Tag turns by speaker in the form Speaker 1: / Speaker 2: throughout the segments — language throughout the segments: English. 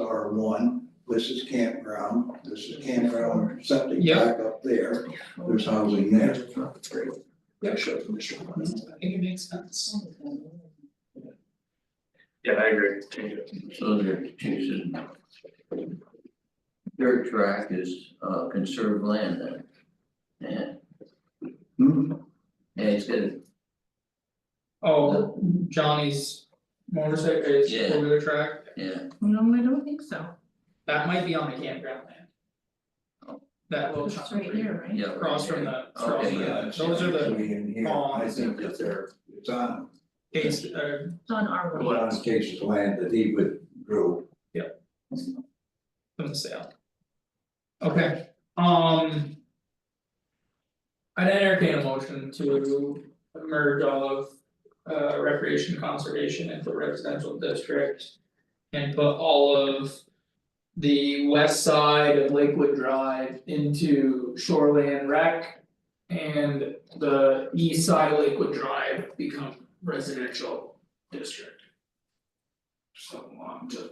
Speaker 1: number one, this is campground, this is campground, something
Speaker 2: Yeah.
Speaker 1: back up there, there's housing there.
Speaker 2: That's great. Yeah, sure, from District One, I think it makes sense.
Speaker 3: Yeah, I agree, change it.
Speaker 4: So they're choosing. Their track is uh conserved land then. Yeah,
Speaker 1: Hmm,
Speaker 4: yeah, it's good,
Speaker 2: Oh, Johnny's motorcycle is
Speaker 4: Yeah.
Speaker 2: over the track,
Speaker 4: yeah,
Speaker 5: No, I don't think so.
Speaker 2: that might be on the campground land.
Speaker 4: Oh.
Speaker 2: That little chunk
Speaker 5: It's
Speaker 2: right
Speaker 5: right here, right?
Speaker 4: yeah. right
Speaker 2: across from
Speaker 4: there.
Speaker 2: the, across
Speaker 4: Okay,
Speaker 2: from
Speaker 4: Oh, yeah,
Speaker 2: the, those are the
Speaker 1: actually in here, I
Speaker 2: ponds.
Speaker 1: think that they're, it's on,
Speaker 2: dates, uh,
Speaker 5: It's on our
Speaker 1: it's
Speaker 5: way.
Speaker 1: on Casey's land that he withdrew.
Speaker 2: from the sale. Okay, um. I'd entertain a motion to merge all of uh recreation conservation into residential district. And put all of the west side of Lakewood Drive into shoreland rec. And the east side of Lakewood Drive become residential district. So um to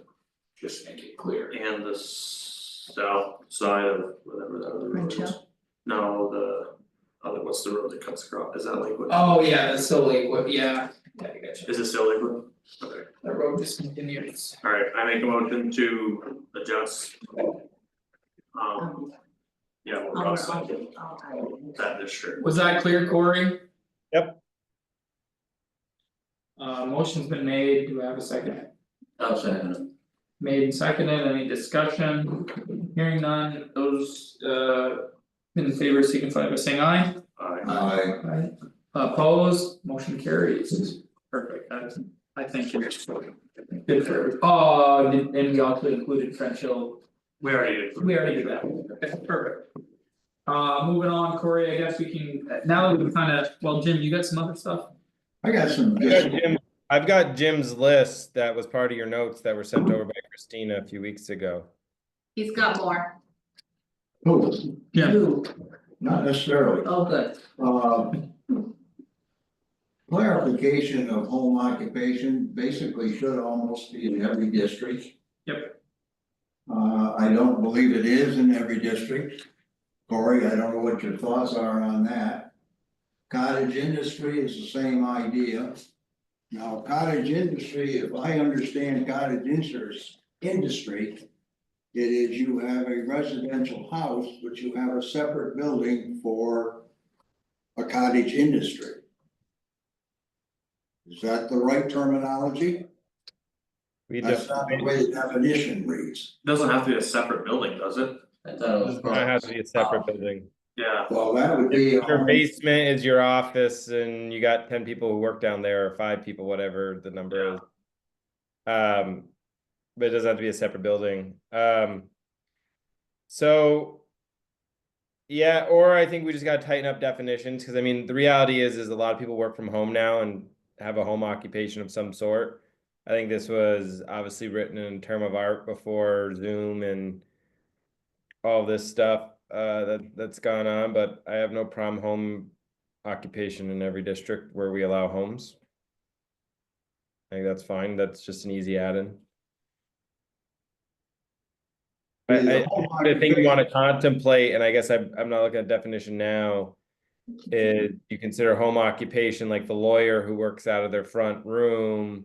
Speaker 2: just make it clear.
Speaker 3: And the south side of whatever that other road
Speaker 5: Ridge
Speaker 3: is.
Speaker 5: Hill?
Speaker 3: No, the other, what's the road that cuts across, is that Lakewood?
Speaker 2: Oh, yeah, that's still Lakewood, yeah, yeah, I gotcha,
Speaker 3: Is it still Lakewood? Okay,
Speaker 2: that road just continues.
Speaker 3: alright, I make a motion to adjust. Um,
Speaker 5: Um,
Speaker 3: yeah, we're
Speaker 5: our-
Speaker 3: across
Speaker 5: our-
Speaker 3: that
Speaker 5: our-
Speaker 3: that district,
Speaker 2: Was that clear, Corey? Yep. Uh, motion's been made, do I have a second?
Speaker 4: I'll second it.
Speaker 2: Made and seconded, any discussion? Hearing none, those uh in favor signify by saying aye.
Speaker 3: uh,
Speaker 1: I,
Speaker 2: Aye. Opposed, motion carries. Perfect, that's, I think it's good for, oh, and and we also included French Hill
Speaker 3: we already.
Speaker 2: We already did that, Okay, perfect. Uh, moving on, Corey, I guess we can, now that we've kind of, well, Jim, you got some other stuff?
Speaker 1: I got some,
Speaker 6: I got Jim- I've got Jim's list that was part of your notes that were sent over by Christina a few weeks ago.
Speaker 5: He's got more.
Speaker 1: oh,
Speaker 2: Yeah.
Speaker 1: not necessarily,
Speaker 4: Oh, good.
Speaker 1: Uh, Clarification of home occupation basically should almost be in every district. Yep. Uh, I don't believe it is in every district. Corey, I don't know what your thoughts are on that. Cottage industry is the same idea. Now cottage industry, if I understand cottage industry, industry. It is you have a residential house, but you have a separate building for a cottage industry. Is that the right terminology?
Speaker 6: We
Speaker 1: That's
Speaker 6: def-
Speaker 1: not the way the definition reads.
Speaker 3: Doesn't have to be a separate building, does it?
Speaker 4: I thought it was.
Speaker 6: does not have to be a separate building.
Speaker 3: Yeah,
Speaker 1: Well, that would be. a
Speaker 6: Your
Speaker 1: home-
Speaker 6: basement is your office and you got ten people who work down there or five people, whatever the number is. Um, but it doesn't have to be a separate building. Um. So. Yeah, or I think we just gotta tighten up definitions, cause I mean, the reality is, is a lot of people work from home now and have a home occupation of some sort. I think this was obviously written in term of art before Zoom and. All this stuff, uh, that, that's gone on, but I have no problem home occupation in every district where we allow homes. I think that's fine, that's just an easy add-in. I,
Speaker 1: Is
Speaker 6: I,
Speaker 1: a home
Speaker 6: the thing you
Speaker 1: occupation-
Speaker 6: wanna contemplate, and I guess I'm, I'm not looking at definition now. Is you consider home occupation like the lawyer who works out of their front room.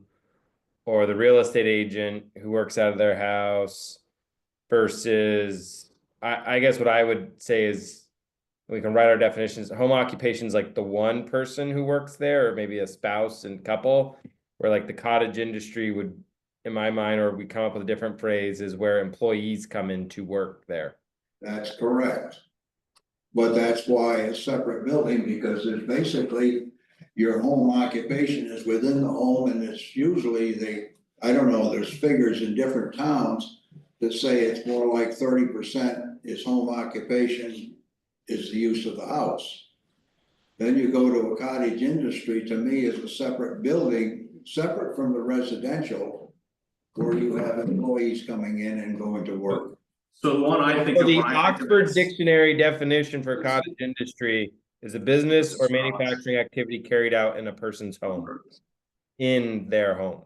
Speaker 6: Or the real estate agent who works out of their house. Versus, I, I guess what I would say is. We can write our definitions, home occupation's like the one person who works there, or maybe a spouse and couple. Where like the cottage industry would in my mind, or we come up with a different phrase, is where employees come in to work there.
Speaker 1: That's correct. But that's why a separate building, because it's basically your home occupation is within the home and it's usually they, I don't know, there's figures in different towns that say it's more like thirty percent is home occupation is the use of the house. Then you go to a cottage industry, to me, is a separate building, separate from the residential, where you have employees coming in and going to work.
Speaker 3: so the one I think of.
Speaker 6: the
Speaker 3: when I think of
Speaker 6: Oxford
Speaker 3: this-
Speaker 6: Dictionary definition for cottage industry is a business or manufacturing activity carried out in a person's home, in their home.